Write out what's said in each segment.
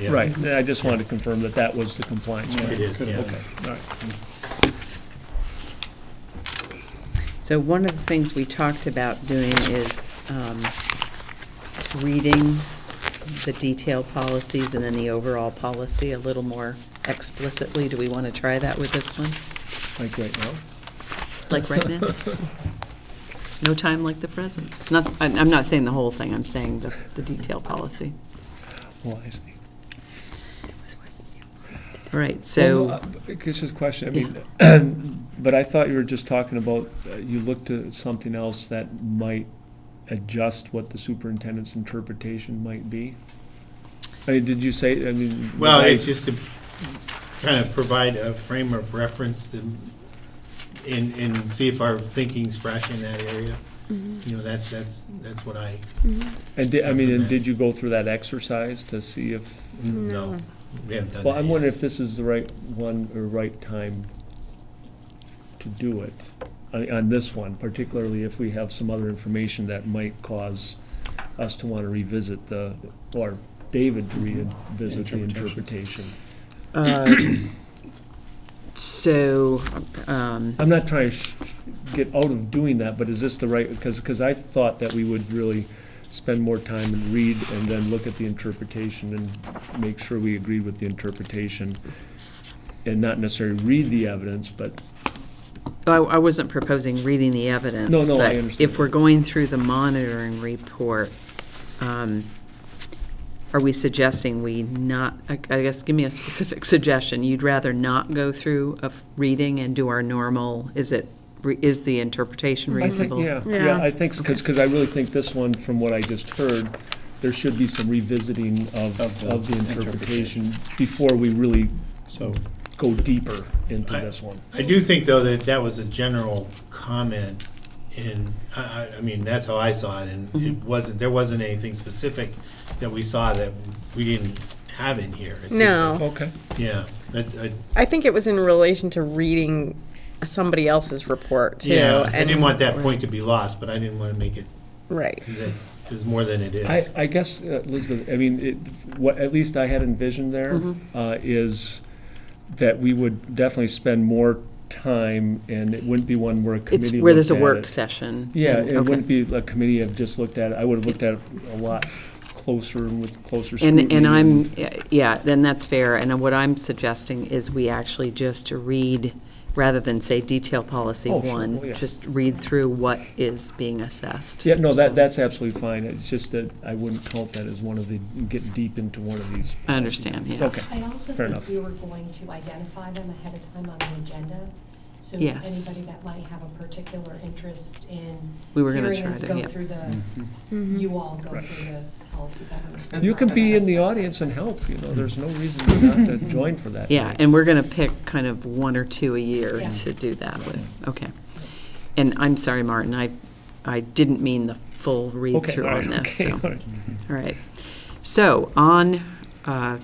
Yeah. Right, I just wanted to confirm that that was the compliance. It right? is, yeah. Okay, all right. So one of the things we talked about doing is um, reading the detail policies and then the overall policy a little more explicitly. Do we want to try that with this one, Like right now? like right now? No time like the present. Not, I- I'm not saying the whole thing, I'm saying the, the detail policy. Well, I see. All right, Well, so, no, uh, I- It's just a question, I mean, but I thought you were just talking about, uh, you looked at something else that might adjust what the superintendent's interpretation might be? I mean, did you say, I mean. Well, I- it's just to kind of provide a frame of reference to, and, and see if our thinking's fresh in that area. You know, that's, that's, that's what I, And did, I mean, and did you go through that exercise to see if, no, we haven't done that well, I'm yet. wondering if this is the right one or right time to do it, on, on this one, particularly if we have some other information that might cause us to want to revisit the, or David to revisit the interpretation. uh, so, um, I'm not trying to sh- sh- get out of doing that, but is this the right, because, because I thought that we would really spend more time and read and then look at the interpretation and make sure we agree with the interpretation and not necessarily read the evidence, but, I, I wasn't proposing reading the evidence. No, no, I But understand. if we're going through the monitoring report, um, are we suggesting we not, I I guess, give me a specific suggestion. You'd rather not go through a f- reading and do our normal, is it, re- is the interpretation I think- reasonable? yeah, Yeah. yeah, I think, because, because I really think this one, from what I just heard, there should be some revisiting of, Of the of the interpretation. interpretation before we really So, go deeper into I- this one. I do think, though, that that was a general comment, and, I, I- I mean, that's how I saw it, and it Mm-hmm. wasn't, there wasn't anything specific that we saw that we didn't have in here. It's just a- No. Okay. Yeah, uh, that, I, I think it was in relation to reading somebody else's report too. yeah, I and- didn't want that point to be lost, but I didn't want to make it, Right. that it was more than it I, is. I guess, uh, Elizabeth, I mean, it, what, at least I had envisioned there, Mm-hmm. uh, is that we would definitely spend more time, and it wouldn't be one where a committee It's where there's a looked at work it. session. Yeah, and- it okay. wouldn't be a committee have just looked at it, I would have looked at it a lot closer and with closer scrutiny. And, and I'm, yeah, then that's fair, and what I'm suggesting is we actually just read, rather than say detail policy Oh, sure. Oh, one, yeah. just read through what is being assessed. Yeah, no, So- that, that's absolutely fine, it's just that I wouldn't count that as one of the, get deep into one of these. I understand, yeah. Okay, I also fair enough. think we were going to identify them ahead of time on the agenda. So Yes. anybody that might have a particular interest in. We were gonna try Hearing us to, go yeah. through the, you all go through the policy. governance You can be in the process. audience and help, you know, there's no reason not to join for that. Yeah, and we're going to pick kind of one or two a year Yeah. to do that with, okay. And I'm sorry, Martin, I, I didn't mean the full Okay, read-through all right, on this, okay, so. all right. All right. So on uh,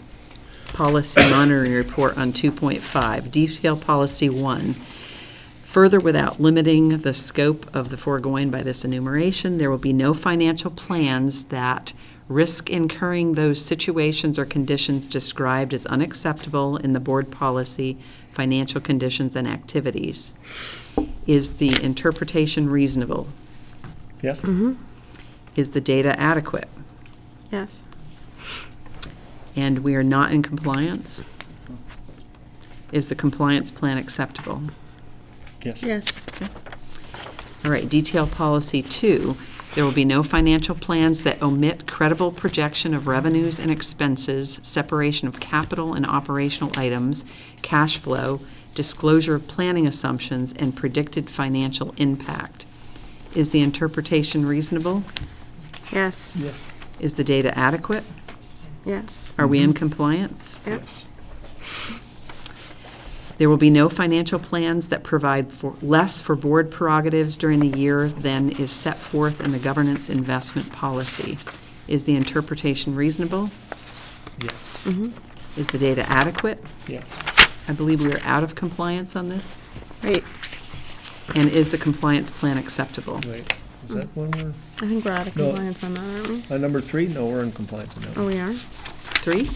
policy monitoring report on 2.5, detail policy one. Further, without limiting the scope of the foregoing by this enumeration, there will be no financial plans that risk incurring those situations or conditions described as unacceptable in the board policy, financial conditions and activities. Is the interpretation reasonable? Yes? Is the data adequate? Yes. And we are not in compliance? Is the compliance plan acceptable? Yes. Yes. All right, detail policy two, there will be no financial plans that omit credible projection of revenues and expenses, separation of capital and operational items, cash flow, disclosure of planning assumptions, and predicted financial impact. Is the interpretation reasonable? Yes. Yes. Is the data adequate? Yes. Are we in compliance? Yep. Yes. There will be no financial plans that provide for, less for board prerogatives during the year than is set forth in the governance investment policy. Is the interpretation reasonable? Yes. Mm-hmm. Is the data adequate? Yes. I believe we are out of compliance on this. Right. And is the compliance plan acceptable? Wait, is that one Uh, we're, I think we're out of No. compliance on that, aren't we? on number three? No, we're in compliance on that. Oh, one. we are. Three?